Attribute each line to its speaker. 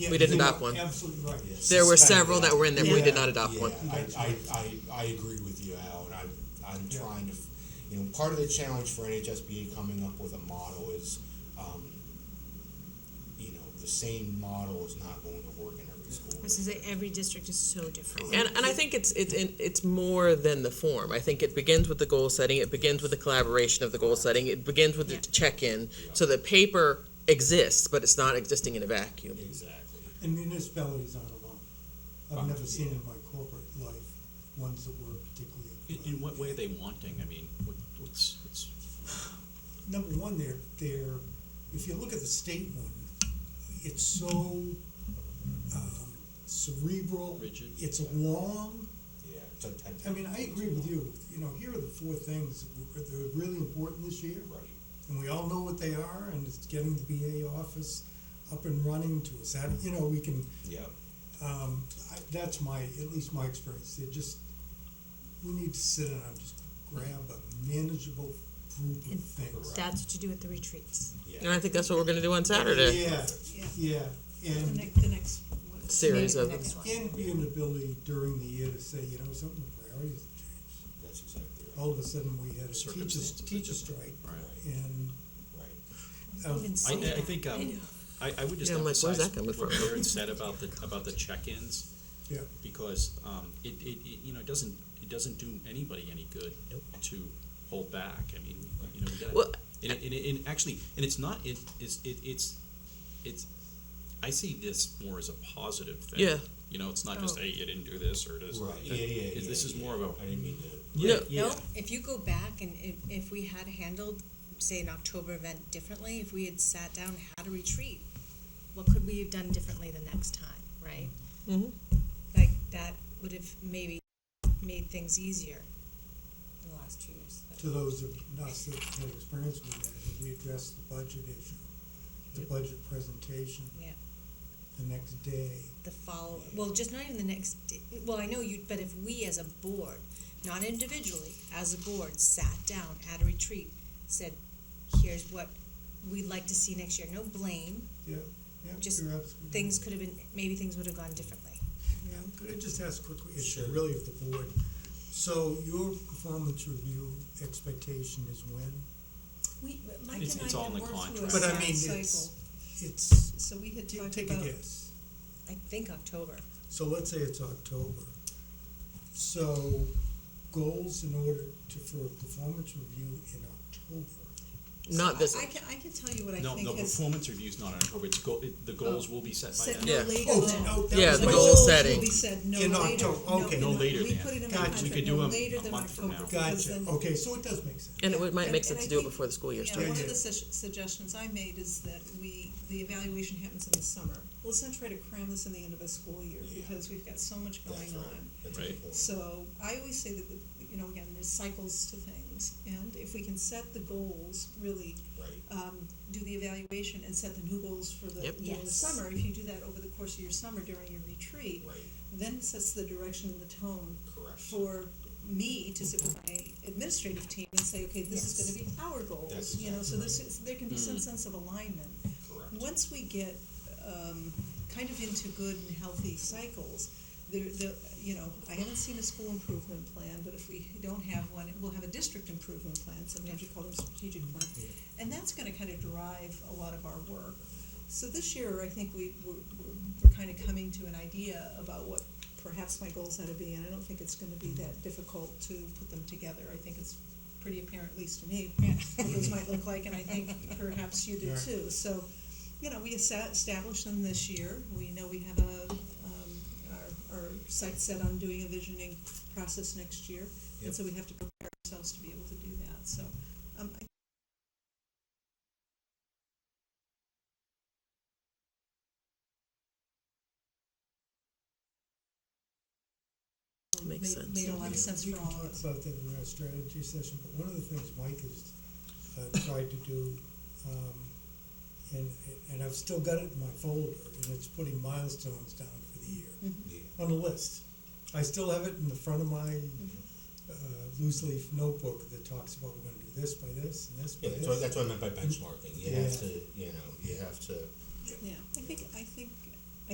Speaker 1: We didn't adopt one.
Speaker 2: Absolutely right.
Speaker 1: There were
Speaker 2: Suspended.
Speaker 1: several that were in there, but we did not adopt
Speaker 3: Yeah,
Speaker 1: one.
Speaker 3: I, I, I, I agree with you, Al, and I'm, I'm trying to, f- you know, part of the challenge for NHSBA coming up with a model is, um, you know, the same model is not going to work in every school.
Speaker 4: I was gonna say every district is so different.
Speaker 1: And, and I think it's, it's, in- it's more than the form. I think it begins with the goal setting, it begins with the collaboration of the goal setting, it begins with the
Speaker 4: Yeah.
Speaker 1: check-in. So the paper exists, but it's not existing in a vacuum.
Speaker 3: Exactly.
Speaker 2: And municipalities aren't alone. I've
Speaker 3: Um,
Speaker 2: never seen
Speaker 3: yeah.
Speaker 2: in my corporate life ones that were particularly.
Speaker 5: In, in what way are they wanting? I mean, what, what's, it's,
Speaker 2: number one, they're, they're, if you look at the state one, it's so um, cerebral.
Speaker 5: Rigid.
Speaker 2: It's long.
Speaker 3: Yeah, it's a ten.
Speaker 2: I mean, I agree with you. You know, here are the four things that were- that are really important this year.
Speaker 3: Right.
Speaker 2: And we all know what they are, and it's getting the BA office up and running to us. That, you know, we can,
Speaker 3: Yeah.
Speaker 2: um, I, that's my, at least my experience. They just, we need to sit down and just grab a manageable group of things.
Speaker 4: That's what you do at the retreats.
Speaker 1: And I think that's what we're gonna do on Saturday.
Speaker 2: Yeah,
Speaker 6: Yeah.
Speaker 2: yeah,
Speaker 6: The
Speaker 2: and,
Speaker 6: next, the next one.
Speaker 1: Series
Speaker 4: Maybe
Speaker 1: of
Speaker 4: the next one.
Speaker 2: and be an ability during the year to say, you know, some of the priorities have changed.
Speaker 3: That's exactly right,
Speaker 2: All of a sudden, we had a teacher's,
Speaker 5: Circumstances.
Speaker 2: teacher strike,
Speaker 5: all right.
Speaker 2: and,
Speaker 3: right.
Speaker 2: um,
Speaker 4: Even
Speaker 5: I,
Speaker 4: say
Speaker 5: I
Speaker 4: that.
Speaker 5: think, um, I, I would just
Speaker 1: Yeah, I'm like, where's
Speaker 5: emphasize
Speaker 1: that coming
Speaker 5: what
Speaker 1: from?
Speaker 5: Darren said about the, about the check-ins.
Speaker 2: Yeah.
Speaker 5: Because, um, it, it, it, you know, it doesn't, it doesn't do anybody any good to hold back. I mean, you know, we gotta.
Speaker 1: Well,
Speaker 5: And, it- and, it- and actually, and it's not, it, it's, it, it's, it's, I see this more as a positive thing.
Speaker 1: Yeah.
Speaker 5: You know, it's not just,
Speaker 4: Oh.
Speaker 5: hey, you didn't do this, or this.
Speaker 3: Right, yeah, yeah, yeah.
Speaker 5: This is
Speaker 3: yeah.
Speaker 5: more of a,
Speaker 3: I didn't mean to.
Speaker 5: yeah,
Speaker 1: No.
Speaker 5: yeah.
Speaker 6: No, if you go back and if, if we had handled, say, an October event differently, if we had sat down, and had a retreat, what could we have done differently the next time, right?
Speaker 1: Mhm.
Speaker 6: Like, that would have maybe made things easier in the last two years.
Speaker 2: to those of us that had experience with that, if we addressed the budget issue, the budget presentation
Speaker 6: Yeah,
Speaker 2: the next day.
Speaker 6: the follow, well, just not even the next, d- well, I know you, but if we as a board, not individually, as a board, sat down at a retreat, said, here's what we'd like to see next year, no blame,
Speaker 2: Yeah, yeah,
Speaker 6: Just
Speaker 2: you're absolutely right.
Speaker 6: things could have been, maybe things would have gone differently.
Speaker 2: Yeah, could I just ask quickly, it's
Speaker 3: Sure.
Speaker 2: really of the board. So your performance review expectation is when?
Speaker 6: We, Mike
Speaker 5: It's-
Speaker 6: and
Speaker 5: it's
Speaker 6: I
Speaker 5: all
Speaker 6: had
Speaker 5: in the
Speaker 6: worked through a
Speaker 5: contract.
Speaker 2: But I
Speaker 6: sad
Speaker 2: mean,
Speaker 6: cycle,
Speaker 2: it's, it's,
Speaker 6: so we had
Speaker 2: ta-
Speaker 6: talked
Speaker 2: take a
Speaker 6: about,
Speaker 2: guess.
Speaker 6: I think October,
Speaker 2: So let's say it's October. So goals in order to, for a performance review in October.
Speaker 1: Not this,
Speaker 6: I can, I can tell you what I
Speaker 5: No,
Speaker 6: think
Speaker 5: no,
Speaker 6: has
Speaker 5: performance review's not on October, it's go, it- the goals will be set by
Speaker 6: said
Speaker 5: then.
Speaker 1: Yeah.
Speaker 6: no later
Speaker 2: Oh,
Speaker 6: than.
Speaker 2: oh, that
Speaker 1: Yeah,
Speaker 2: was
Speaker 1: the
Speaker 2: my-
Speaker 1: goal
Speaker 6: Goals will
Speaker 1: setting.
Speaker 6: be said no
Speaker 2: In
Speaker 6: later,
Speaker 2: October, okay.
Speaker 5: No
Speaker 6: no,
Speaker 5: later
Speaker 6: we
Speaker 5: than.
Speaker 6: put it in the
Speaker 2: Gotcha.
Speaker 6: contract,
Speaker 5: We could do
Speaker 6: no
Speaker 5: a-
Speaker 6: later
Speaker 5: a
Speaker 6: than
Speaker 5: month from
Speaker 6: October,
Speaker 5: now.
Speaker 6: because
Speaker 2: Gotcha,
Speaker 6: then-
Speaker 2: okay, so it does make sense.
Speaker 1: and it would- might
Speaker 6: And-
Speaker 1: make
Speaker 6: and
Speaker 1: sense
Speaker 6: I
Speaker 1: to do it
Speaker 6: think-
Speaker 1: before the school year
Speaker 6: Yeah,
Speaker 1: starts.
Speaker 6: one
Speaker 2: Yeah.
Speaker 6: of the sus- suggestions I made is that we, the evaluation happens in the summer. Let's not try to cram this in the end of a school year because we've got so much
Speaker 3: That's
Speaker 6: going
Speaker 3: right.
Speaker 6: on.
Speaker 3: That's a good
Speaker 5: Right.
Speaker 3: point.
Speaker 6: So I always say that, the- you know, again, there's cycles to things. And if we can set the goals, really
Speaker 3: Right.
Speaker 6: um, do the evaluation and set the new goals for the,
Speaker 1: Yep.
Speaker 6: during the
Speaker 4: Yes.
Speaker 6: summer, if you do that over the course of your summer during your retreat,
Speaker 3: Right.
Speaker 6: then it sets the direction and the tone
Speaker 3: Correct.
Speaker 6: for me to sit with my administrative team and say, okay, this
Speaker 4: Yes.
Speaker 6: is going to be our goals.
Speaker 3: That's
Speaker 6: you know, so
Speaker 3: exactly
Speaker 6: this is, there can be some sense of alignment.
Speaker 3: Correct.
Speaker 6: Once we get um, kind of into good and healthy cycles, there, the, you know, I haven't seen a school improvement plan, but if we don't have one, we'll have a district improvement plan. Sometimes you call them strategic plan, and that's going to kind of drive a lot of our work. So this year, I think we we're, we're, we're kind of coming to an idea about what perhaps my goals ought to be, and I don't think it's going to be that difficult to put them together. I think it's pretty apparent, at least to me, what those might look like, and I think perhaps you do
Speaker 2: Yeah.
Speaker 6: too. So, you know, we esta- established them this year. We know we have a, um, our, our sight set on doing a visioning process next year, and
Speaker 3: Yep.
Speaker 6: so we have to prepare ourselves to be able to do that. So, um, I
Speaker 1: Makes
Speaker 6: made,
Speaker 1: sense.
Speaker 6: made a lot of sense
Speaker 2: We
Speaker 6: for
Speaker 2: can
Speaker 6: all of
Speaker 2: talk
Speaker 6: us.
Speaker 2: about that in our strategy session, but one of the things Mike has uh, tried to do, um, and, and I've still got it in my folder, and it's putting milestones down for the year
Speaker 6: Mm-hmm.
Speaker 3: Yeah.
Speaker 2: on a list. I still have it in the front of my
Speaker 6: Mm-hmm.
Speaker 2: uh, loose leaf notebook that talks about we're gonna do this by this and this by
Speaker 3: Yeah,
Speaker 2: this.
Speaker 3: that's what, that's what I meant by benchmarking. You
Speaker 2: Yeah.
Speaker 3: have to, you know, you have to.
Speaker 6: Yeah, I think, I think